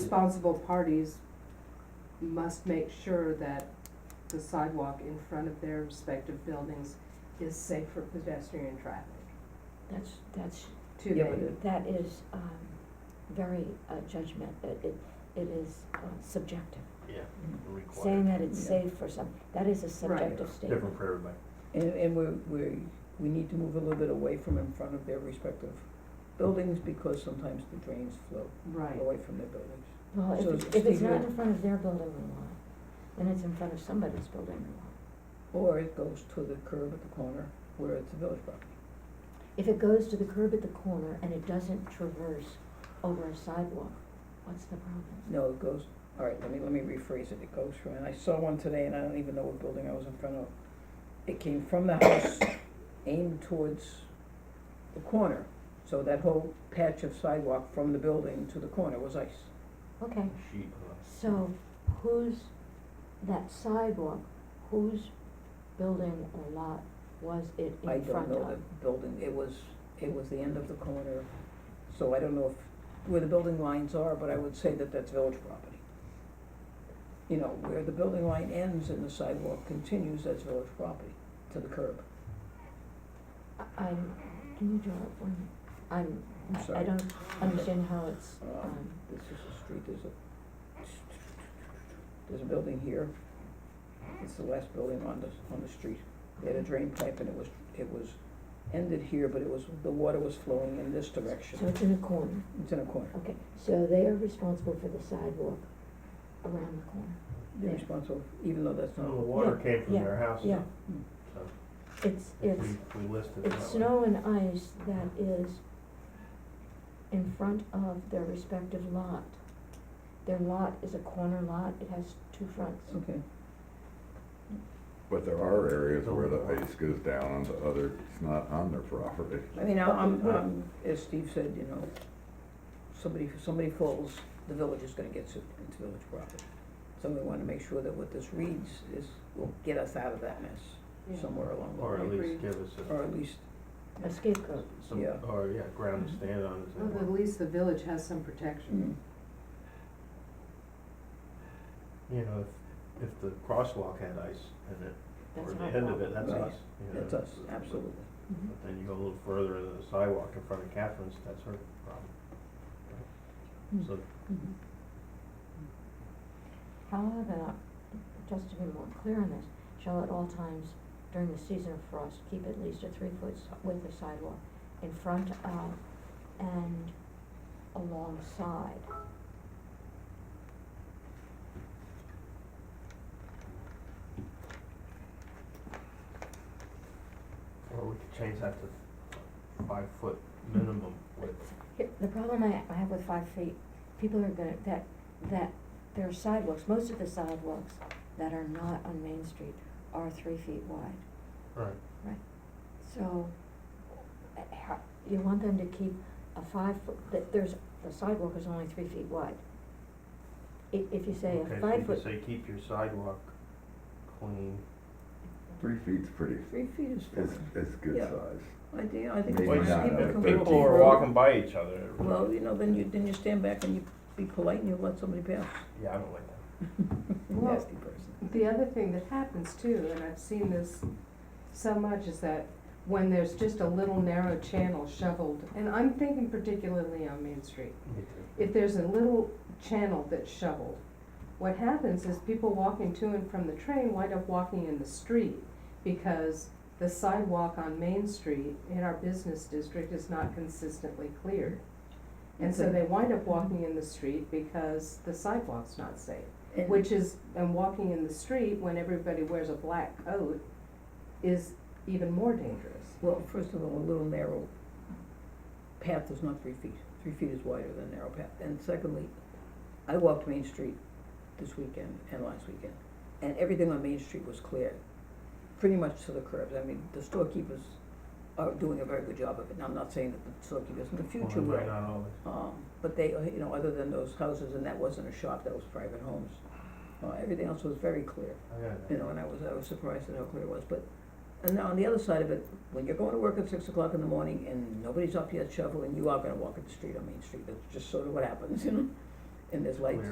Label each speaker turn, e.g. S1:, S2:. S1: responsible parties must make sure that the sidewalk in front of their respective buildings is safe for pedestrian traffic.
S2: That's, that's,
S1: Too
S3: Yeah, but
S1: late.
S3: it-
S2: that is, um, very uh, judgment, it, it, it is uh, subjective.
S4: Yeah, required.
S2: Saying that it's
S3: Yeah.
S2: safe for some, that is a subjective statement.
S4: Different for everybody.
S3: And, and we're, we, we need to move a little bit away from in front of their respective buildings because sometimes the drains flow
S1: Right,
S3: away from their buildings.
S2: Well, if
S3: So
S2: it's, if it's
S3: Steve,
S2: not
S3: you-
S2: in front of their building or lot, then it's in front of somebody's building or lot.
S3: Or it goes to the curb at the corner where it's a village property.
S2: If it goes to the curb at the corner and it doesn't traverse over a sidewalk, what's the problem?
S3: No, it goes, all right, let me, let me rephrase it, it goes from, and I saw one today and I don't even know what building I was in front of. It came from the house, aimed towards the corner, so that whole patch of sidewalk from the building to the corner was ice.
S2: Okay,
S4: She,
S2: so whose, that sidewalk, whose building or lot was it
S3: I
S2: in
S3: don't
S2: front
S3: know the
S2: of?
S3: building, it was, it was the end of the corner, so I don't know if, where the building lines are, but I would say that that's village property. You know, where the building line ends and the sidewalk continues, that's village property, to the curb.
S2: I, I'm, can you draw it for me? I'm,
S3: I'm
S2: I- I
S3: sorry.
S2: don't understand how it's,
S3: Um,
S2: um,
S3: this is a street, there's a, there's a building here, it's the last building on the, on the street. They had a drain pipe and it was, it was ended here, but it was, the water was flowing in this
S2: so
S3: direction,
S2: it's in a corner,
S3: it's in a corner.
S2: okay, so they are responsible for the sidewalk around the corner.
S3: They're
S2: Yeah.
S3: responsible, even though that's
S4: the
S3: not,
S4: water
S2: Yeah,
S4: came from
S2: yeah,
S4: their house,
S2: yeah.
S4: so
S2: It's,
S4: if
S2: it's,
S4: we, we listed it that way.
S2: it's snow and ice that is in front of their respective lot. Their lot is a corner lot, it has two fronts.
S3: okay,
S5: But there are areas where the
S3: Oh.
S5: ice goes down on the other, it's not on their property.
S3: I mean, I- I'm, I'm, as Steve said, you know, somebody, if somebody falls, the village is gonna get sued, it's village property. So we wanna make sure that what this reads is, will get us out of that mess
S1: yeah.
S3: somewhere along the
S4: Or
S3: way,
S4: at
S1: Agree.
S4: least give us
S3: or
S4: a,
S3: at least,
S2: A scapegoat,
S4: some,
S3: yeah.
S4: or, yeah, ground
S2: Mm-hmm.
S4: to stand on, is
S1: Well,
S4: that
S1: at least the village has some protection.
S3: mm,
S4: you know, if, if the crosswalk had ice in it,
S2: that's
S4: or
S2: our
S4: the
S2: problem.
S4: end of it, that's
S3: Right.
S4: us, you know.
S3: that's us, absolutely.
S2: Mhm.
S4: But then you go a little further to the sidewalk in front of Catherine's, that's her problem.
S2: Hmm.
S4: So,
S2: Mhm. How about, uh, just to be more clear on this, shall at all times during the season of frost, keep at least a three-foot si- width of sidewalk in front of and alongside.
S4: or we could change that to five foot minimum width,
S2: Here, The problem I, I have with five feet, people are gonna, that, that, there are sidewalks, most of the sidewalks that are not on Main Street are three feet wide.
S4: right,
S2: So, uh, how, you want them to keep a five foot, that there's, the sidewalk is only three feet wide. If, if you say
S4: okay,
S2: a
S4: so you could
S2: five foot,
S4: say keep your sidewalk clean,
S5: Three feet's pretty,
S3: Three feet is
S5: is,
S3: fine,
S5: is good
S3: Yeah.
S5: size.
S3: I think, I think it's
S5: Maybe
S3: fine.
S5: not,
S3: People
S5: uh,
S3: can
S5: thirteen.
S3: walk
S4: People are
S3: through.
S4: walking by each other,
S3: Well, you know, then you, then you stand back and you be polite and you let somebody pass,
S4: yeah, I don't like that,
S1: Well,
S3: nasty person.
S1: The other thing that happens too, and I've seen this so much, is that when there's just a little narrow channel shoveled, and I'm thinking particularly on Main Street,
S4: me too.
S1: if there's a little channel that's shoveled, what happens is people walking to and from the train wind up walking in the street because the sidewalk on Main Street in our business district is not consistently cleared. And so they wind up walking in the street because the sidewalk's not safe.
S3: And-
S1: Which is, and walking in the street when everybody wears a black coat is even more dangerous.
S3: Well, first of all, a little narrow path is not three feet. Three feet is wider than a narrow path. And secondly, I walked Main Street this weekend and last weekend, and everything on Main Street was cleared, pretty much to the curbs. I mean, the storekeepers are doing a very good job of it, and I'm not saying that the storekeepers in the future
S4: Well,
S3: will.
S4: it might not always.
S3: Um, but they, you know, other than those houses, and that wasn't a shop, that was private homes. Uh, everything else was very clear
S4: I got
S3: you
S4: it.
S3: know, and I was, I was surprised at how clear it was, but, and now on the other side of it, when you're going to work at six o'clock in the morning and nobody's up yet shoveling, you are gonna walk up the street on Main Street, that's just sort of what happens, you know? and there's lights.